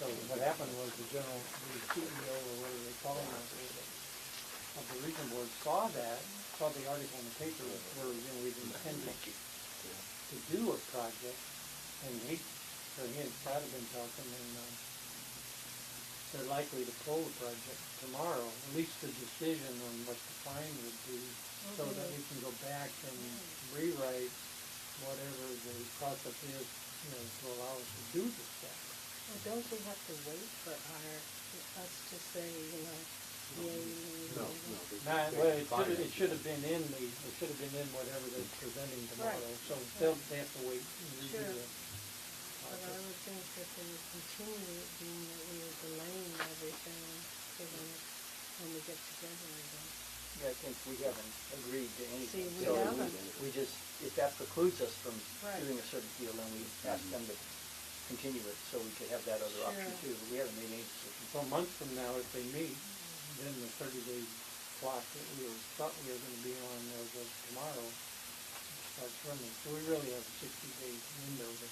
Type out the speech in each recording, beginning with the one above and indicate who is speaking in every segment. Speaker 1: So what happened was the general, the CEO or whatever they call him, of the region board saw that, saw the article in the paper where, you know, we'd intended to do a project, and he, or he and Scott have been talking, and, um, they're likely to pull the project tomorrow, at least the decision on what the fine would be, so that we can go back and rewrite whatever the process is, you know, to allow us to do this stuff.
Speaker 2: Well, don't we have to wait for our, for us to say, you know, yay,
Speaker 3: No, no.
Speaker 2: nay?
Speaker 3: they-
Speaker 1: No,
Speaker 3: they
Speaker 1: well, it
Speaker 3: define
Speaker 1: should, it should have been in the, it should have been in whatever they're presenting tomorrow,
Speaker 2: Right.
Speaker 1: so they'll, they have to wait and redo
Speaker 2: Sure.
Speaker 1: the.
Speaker 2: But I would think that they would continue it being that we are delaying everything to the, when we get together again.
Speaker 4: Yeah, I think we haven't agreed to anything.
Speaker 2: we
Speaker 4: so
Speaker 2: haven't.
Speaker 4: We just, if that precludes us from
Speaker 2: Right.
Speaker 4: doing a certain deal, then we ask them to continue it so we could have that other option
Speaker 2: Sure.
Speaker 4: too. But we haven't made any decision.
Speaker 1: So a month from now, if they meet, then the thirty day clock that we were, thought we were gonna be on as of tomorrow starts running, so we really have a sixty day window to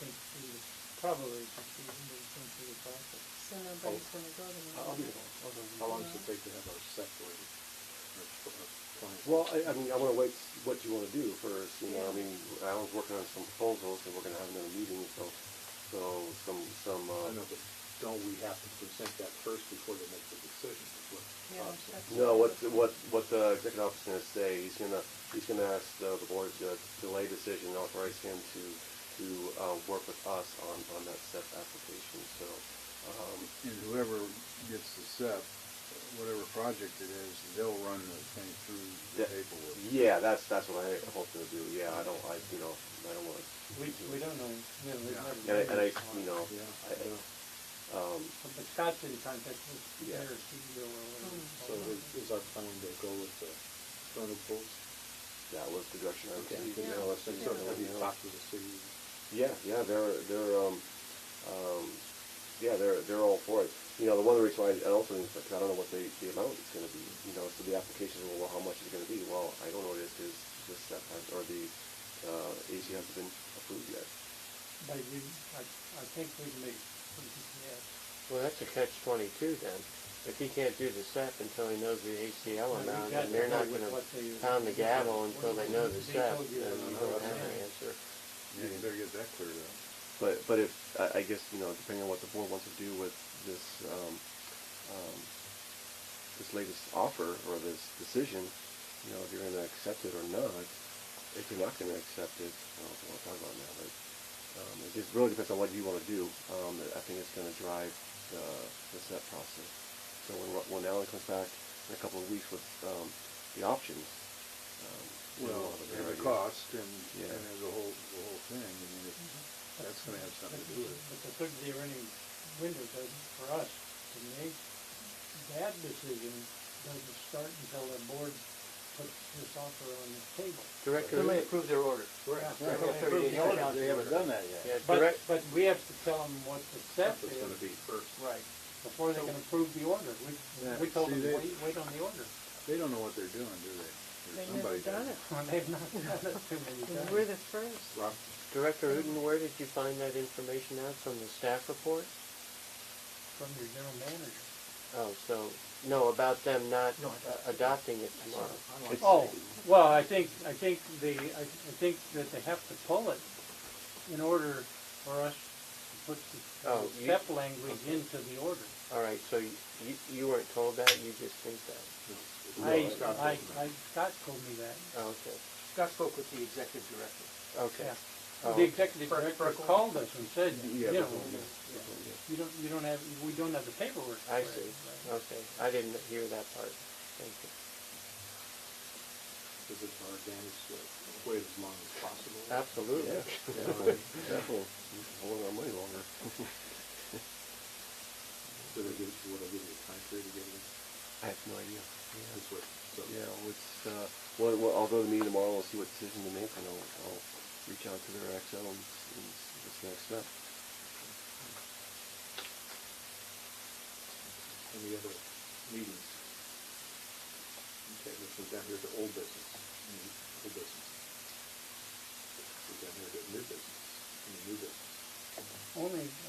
Speaker 1: think through the, probably sixty window to think through the process.
Speaker 2: So nobody's gonna go to
Speaker 3: I'll be
Speaker 2: the.
Speaker 3: there. How long does it take to have our set rated? Our- our client?
Speaker 5: Well, I, I mean, I wanna wait, s- what you wanna do first, you know, I
Speaker 2: Yeah.
Speaker 5: mean, Alan's working on some proposals, and we're gonna have another meeting, so, so, some, some,
Speaker 3: I
Speaker 5: uh,
Speaker 3: know, but don't we have to present that first before they make the decision? is what
Speaker 2: Yeah,
Speaker 3: Bob said.
Speaker 2: that's-
Speaker 5: no, what, what, what the executive officer's gonna say, he's gonna, he's gonna ask the, the board to delay decision, and authorize him to, to, uh, work with us on, on that SEP application, so, um,
Speaker 6: and whoever gets the SEP, whatever project it is, they'll run the thing through the
Speaker 5: Yeah.
Speaker 6: paperwork.
Speaker 5: yeah, that's, that's what I hope to do, yeah, I don't, I, you know, I don't wanna,
Speaker 1: We, we don't know, you know, we've
Speaker 6: Yeah.
Speaker 1: never.
Speaker 5: and
Speaker 1: done
Speaker 5: I, and I,
Speaker 1: this
Speaker 5: you
Speaker 1: before.
Speaker 5: know,
Speaker 3: Yeah.
Speaker 5: I, I, um,
Speaker 1: But Scott's in contact with
Speaker 5: Yeah.
Speaker 1: their CEO E or whatever.
Speaker 2: Hmm.
Speaker 1: it's
Speaker 3: So
Speaker 1: called.
Speaker 3: is- is our plan to go with the vernal pools?
Speaker 5: that was the direction I was
Speaker 3: Okay.
Speaker 5: taking,
Speaker 2: Yeah.
Speaker 5: you
Speaker 3: Now,
Speaker 5: know,
Speaker 3: let's
Speaker 5: it's,
Speaker 3: say
Speaker 2: Yeah.
Speaker 5: it's,
Speaker 3: sort of
Speaker 5: sort of,
Speaker 3: have
Speaker 5: you
Speaker 3: you
Speaker 5: know,
Speaker 3: talk to the city.
Speaker 5: Yeah, yeah, they're they're um, um, yeah, they're they're all for it. You know, the one reason why I also think is I don't know what the, the amount is going to be. You know, so the application, well, how much is it going to be? Well, I don't know what it is because the step has or the uh, AC hasn't been approved yet.
Speaker 1: But you, I, I think we can make, we can, yes.
Speaker 7: Well, that's a catch twenty-two then. If he can't do the step until he knows the
Speaker 1: Now,
Speaker 7: ACL
Speaker 1: you've
Speaker 7: amount,
Speaker 1: got
Speaker 7: and they're
Speaker 1: to
Speaker 7: not
Speaker 1: know
Speaker 7: gonna
Speaker 1: what they-
Speaker 7: pound the gavel until they know the
Speaker 1: They
Speaker 7: step,
Speaker 1: told you
Speaker 7: then you
Speaker 1: that.
Speaker 7: don't have an answer.
Speaker 6: Yeah, you better get that cleared up.
Speaker 5: But but if I, I guess you know, depending on what the board wants to do with this um, um, this latest offer or this decision, you know, if you're going to accept it or not. If you're not going to accept it, I don't know what we'll talk about now, but um, it just really depends on what you want to do. Um, I think it's going to drive the, the set process. So when when Alan comes back in a couple of weeks with um, the options, um, then
Speaker 6: Well,
Speaker 5: we'll
Speaker 6: and
Speaker 5: have a better
Speaker 6: the
Speaker 5: idea.
Speaker 6: cost and,
Speaker 5: Yeah.
Speaker 6: and there's a whole, the whole thing, I mean, it- that's gonna have something to do with it.
Speaker 1: But the third day running window doesn't, for us, to make that decision doesn't start until the board puts this offer on the table.
Speaker 7: Director,
Speaker 4: Then they approve their order.
Speaker 1: Yeah.
Speaker 4: They have 30 days to
Speaker 3: They haven't done that yet.
Speaker 7: yeah,
Speaker 1: But,
Speaker 7: direct,
Speaker 1: but we have to tell them what the step
Speaker 3: That's what's gonna
Speaker 1: is
Speaker 3: be first.
Speaker 4: Right.
Speaker 1: before they can approve the order.
Speaker 6: Yeah,
Speaker 1: We, we told
Speaker 6: see,
Speaker 1: them,
Speaker 6: they-
Speaker 1: wait, wait on the order.
Speaker 6: They don't know what they're doing, do they? Or
Speaker 2: They've never
Speaker 6: somebody
Speaker 2: done
Speaker 6: does.
Speaker 2: it.
Speaker 1: And they've not done it too many
Speaker 2: And We're
Speaker 1: times.
Speaker 2: the first.
Speaker 3: Rob,
Speaker 7: Director Uden, where did you find that information out? From the staff report?
Speaker 1: From your general manager.
Speaker 7: Oh, so, no, about them not
Speaker 4: No, I
Speaker 7: uh, adopting it tomorrow.
Speaker 3: It's-
Speaker 1: Oh, well, I think, I think the, I, I think that they have to pull it in order for us to put the uh,
Speaker 7: Oh, you-
Speaker 1: step language into the order.
Speaker 7: All right, so you, you- you weren't told that, you just think that?
Speaker 3: no, it's
Speaker 1: I,
Speaker 3: not Scott
Speaker 1: I,
Speaker 3: Boltman.
Speaker 1: I, Scott told me that,
Speaker 7: Oh, okay,
Speaker 4: Scott spoke with the executive director.
Speaker 7: okay.
Speaker 1: yeah.
Speaker 7: Oh,
Speaker 1: The executive
Speaker 4: Frank
Speaker 1: director
Speaker 4: Frankel.
Speaker 1: called us and said, you
Speaker 5: Yeah,
Speaker 1: know,
Speaker 5: before, yeah,
Speaker 1: you don't, you don't have, we don't have the paperwork.
Speaker 7: I
Speaker 1: for it."
Speaker 7: see, okay. I didn't hear that part. Thank you.
Speaker 3: Is it our advantage to wait as long as possible?
Speaker 7: Absolutely.
Speaker 3: Yeah, right.
Speaker 5: Definitely, hold our money longer.
Speaker 3: So they give, would I give you a time period to get it?
Speaker 5: I have no idea. Yeah.
Speaker 3: This way, so.
Speaker 5: Yeah, it's, uh, well, well, I'll go to the meeting tomorrow, we'll see what decision they make, and I'll, I'll reach out to their XO and, s- and s- what's the next step.
Speaker 3: Any other meetings? Okay, let's move down here to old business, Any old business. Move down here to new Mm-hmm. business, Any new business.
Speaker 1: Only